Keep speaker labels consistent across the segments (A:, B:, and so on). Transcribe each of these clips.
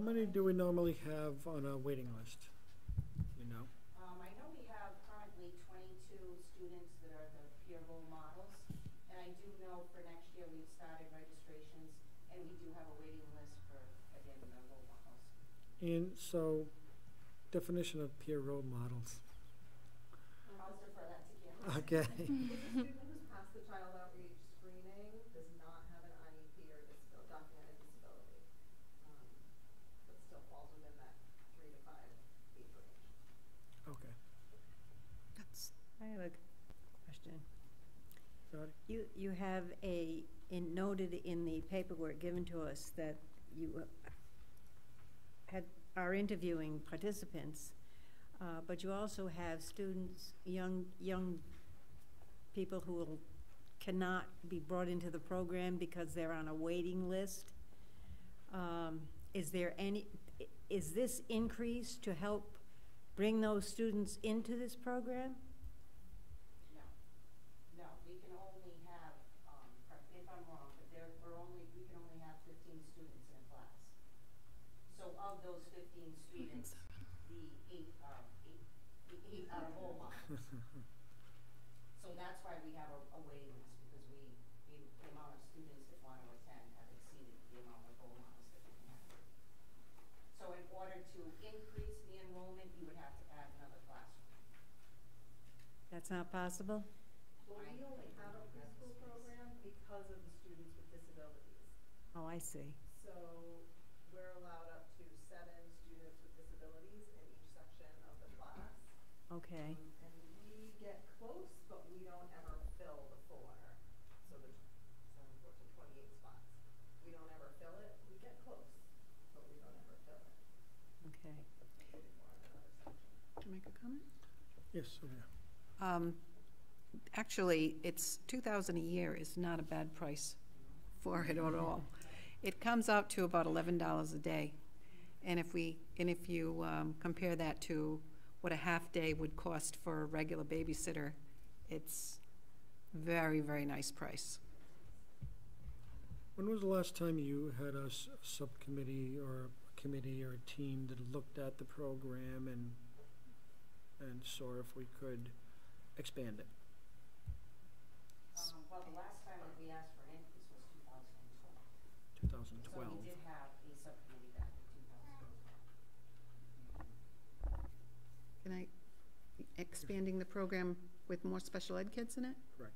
A: many do we normally have on our waiting list? You know?
B: Um, I know we have currently twenty-two students that are the peer role models, and I do know for next year, we've started registrations, and we do have a waiting list for, again, the role models.
A: And so, definition of peer role models.
B: I'll defer that to Kim.
A: Okay,
C: If a student who's passed the child outreach screening does not have an IEP or disability, documented disability, um, but still falls within that three to five age range.
A: okay.
D: I have a question.
A: Got it.
E: You, you have a, in- noted in the paperwork given to us that you uh, had, are interviewing participants, uh, but you also have students, young, young people who will- cannot be brought into the program because they're on a waiting list. Um, Is there any, i- is this increase to help bring those students into this program?
B: No, no, we can only have, um, correct me if I'm wrong, but there, we're only, we can only have fifteen students in a class. So of those fifteen students, the eight are, eight, the eight are role models. So that's why we have a, a waiting list, because we, the the amount of students that want to attend have exceeded the amount of role models that we can have. So in order to increase the enrollment, you would have to add another classroom.
E: That's not possible?
C: Well, we only have a preschool program because of the students with disabilities.
E: Oh, I see.
C: So we're allowed up to seven students with disabilities in each section of the class.
E: Okay,
C: Um, And we get close, but we don't ever fill the four, so there's seven, fourteen, twenty-eight spots. We don't ever fill it, we get close, but we don't ever fill it.
E: okay.
C: We do more in another section.
F: Can I make a comment?
A: Yes, Sylvia.
F: Um, Actually, it's, 2,000 a year is not a bad price for it at all. It comes out to about $11 a day. And if we, and if you um, compare that to what a half-day would cost for a regular babysitter, it's very, very nice price.
A: When was the last time you had a s- subcommittee or a committee or a team that looked at the program and, and saw if we could expand it?
B: Um, well, the last time that we asked for an increase was two thousand and twelve.
A: Two thousand
B: So
A: twelve.
B: we did have a subcommittee back in two thousand and twelve.
F: Can I, expanding the program with more special ed kids in it?
A: Correct.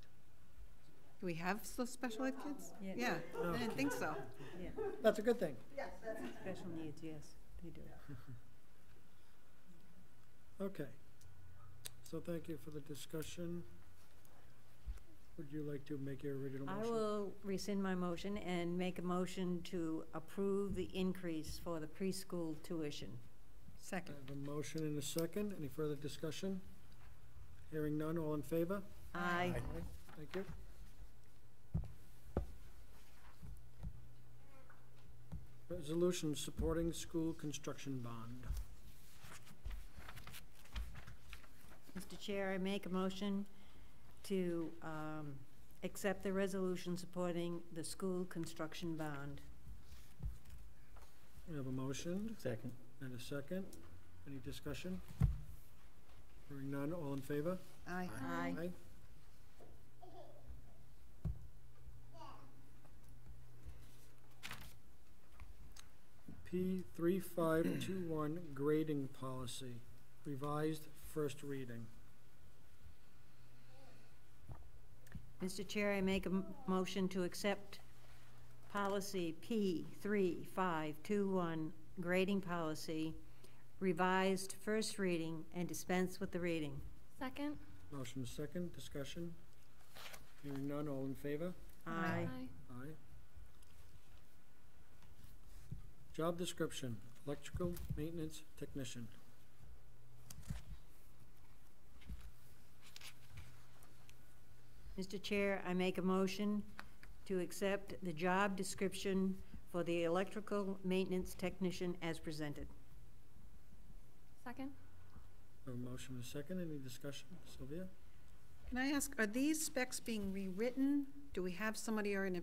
F: Do we have s- special ed kids?
E: Yeah.
F: Yeah,
A: No.
F: I didn't think so.
E: Yeah,
A: That's a good thing.
C: Yes, that's.
E: special needs, yes, they do.
A: Okay. So thank you for the discussion. Would you like to make your original
E: I
A: motion?
E: will rescind my motion and make a motion to approve the increase for the preschool tuition.
A: I
F: Second.
A: have a motion and a second. Any further discussion? Hearing none, all in favor?
E: Aye.
A: Thank you. Resolution supporting school construction bond.
E: Mr. Chair, I make a motion to um, accept the resolution supporting the school construction bond.
A: We have a motion
G: Second.
A: and a second. Any discussion? Hearing none, all in favor?
F: Aye.
E: Aye.
A: P three five two one grading policy, revised first reading.
E: Mr. Chair, I make a m- motion to accept policy P3521, grading policy, revised first reading, and dispense with the reading.
H: Second?
A: Motion second, discussion. Hearing none, all in favor?
E: Aye.
A: Aye. Job description, electrical maintenance technician.
E: Mr. Chair, I make a motion to accept the job description for the electrical maintenance technician as presented.
H: Second?
A: A motion and a second, any discussion? Sylvia?
F: Can I ask, are these specs being rewritten? Do we have somebody or an